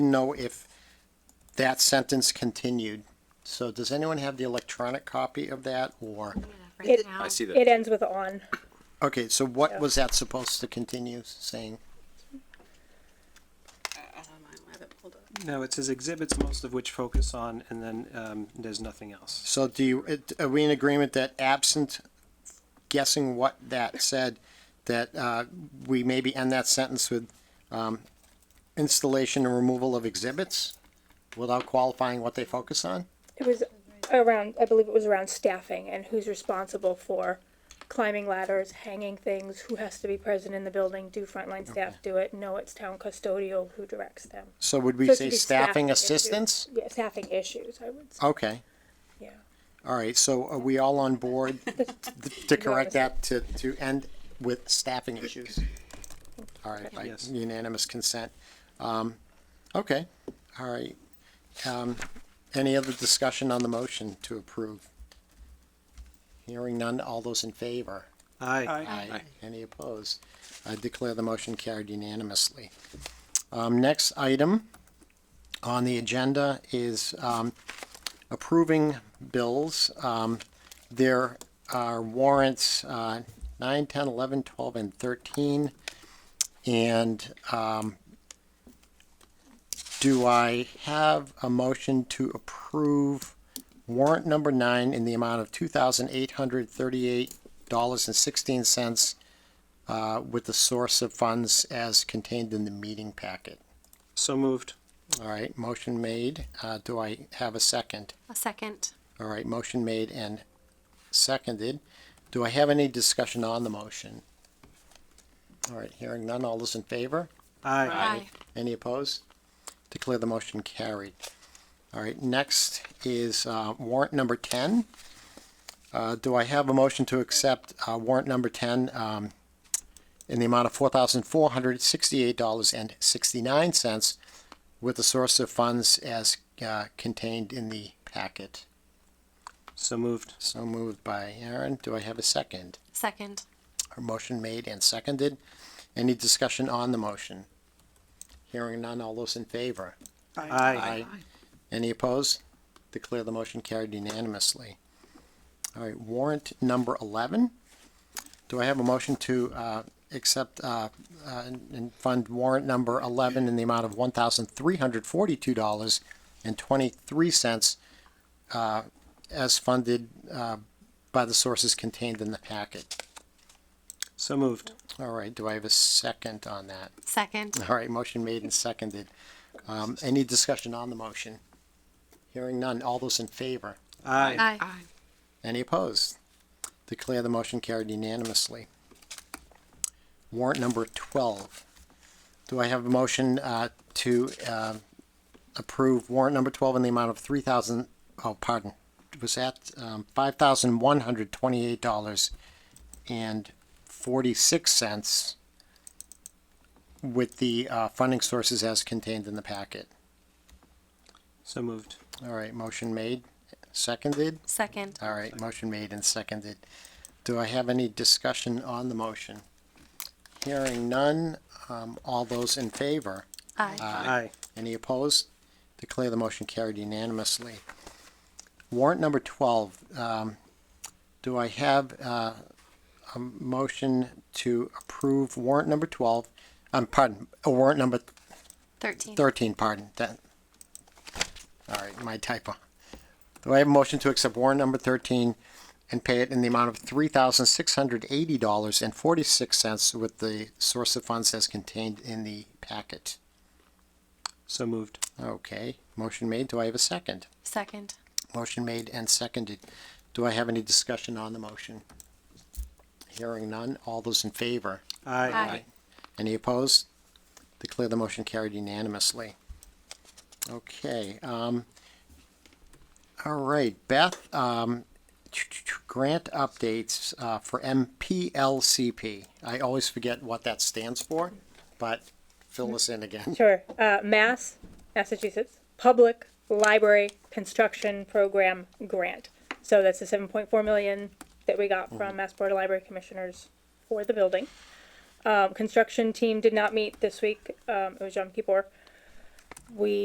know if that sentence continued. So does anyone have the electronic copy of that or? It- Right now, I see that. It ends with on. Okay, so what was that supposed to continue saying? No, it says exhibits, most of which focus on, and then um, there's nothing else. So do you, it- are we in agreement that absent guessing what that said, that, uh, we maybe end that sentence with, um, installation and removal of exhibits without qualifying what they focus on? It was around, I believe it was around staffing and who's responsible for climbing ladders, hanging things, who has to be present in the building, do frontline staff do it? No, it's town custodial who directs them. So would we So it say should be staffing issues. assistance? Yeah, staffing issues, I would say, Okay, yeah. all right, so are we all on board th- to correct that to, to end with staffing issues? All right, by Yes. unanimous consent. Um, okay, all right. Um, any other discussion on the motion to approve? Hearing none, all those in favor? Aye. Aye. Any opposed? I declare the motion carried unanimously. Um, next item on the agenda is, um, approving bills. Um, there are warrants, uh, nine, ten, eleven, twelve, and thirteen. And, um, do I have a motion to approve warrant number nine in the amount of two thousand eight hundred thirty-eight dollars and sixteen cents uh, with the source of funds as contained in the meeting packet. So moved. All right, motion made. Uh, do I have a second? a second. All right, motion made and seconded. Do I have any discussion on the motion? All right, hearing none. All those in favor? Aye. Aye. Any opposed? Declare the motion carried. All right, next is uh, warrant number 10. Uh, Do I have a motion to accept uh, warrant number 10 um, in the amount of $4,468.69 with the source of funds as uh, contained in the packet? So moved. So moved by Aaron. Do I have a second? Second. A motion made and seconded. Any discussion on the motion? Hearing none, all those in favor? Aye. Any opposed? Declare the motion carried unanimously. All right, warrant number 11. Do I have a motion to uh, accept uh, uh, and fund warrant number 11 in the amount of $1,342.23 uh, as funded uh, by the sources contained in the packet? So moved. All right, do I have a second on that? Second. All right, motion made and seconded. Um, any discussion on the motion? Hearing none, all those in favor? Aye. Aye. Any opposed? Declare the motion carried unanimously. Warrant number twelve. Do I have a motion, uh, to, uh, approve warrant number twelve in the amount of three thousand, oh, pardon, was that, um, five thousand one hundred twenty-eight dollars and forty-six cents with the, uh, funding sources as contained in the packet. So moved. All right, motion made, seconded. Second. All right, motion made and seconded. Do I have any discussion on the motion? Hearing none, um, all those in favor? Aye. Aye. Any opposed? Declare the motion carried unanimously. Warrant number twelve, um, do I have, uh, a motion to approve warrant number twelve? Um, pardon, uh, warrant number Thirteen. 13, pardon, that. All right, my typo. Do I have a motion to accept warrant number 13 and pay it in the amount of $3,680.46 with the source of funds as contained in the packet? So moved. Okay, motion made. Do I have a second? Second. Motion made and seconded. Do I have any discussion on the motion? Hearing none. All those in favor? Aye. Any opposed? Declare the motion carried unanimously. Okay, um, all right, Beth, um, grant updates, uh, for MPLCP. I always forget what that stands for, but fill us in again. Sure, uh, Mass, Massachusetts, Public Library Construction Program Grant. So that's the seven point four million that we got from Mass Board of Library Commissioners for the building. Um, construction team did not meet this week, um, it was Yom Kippur. we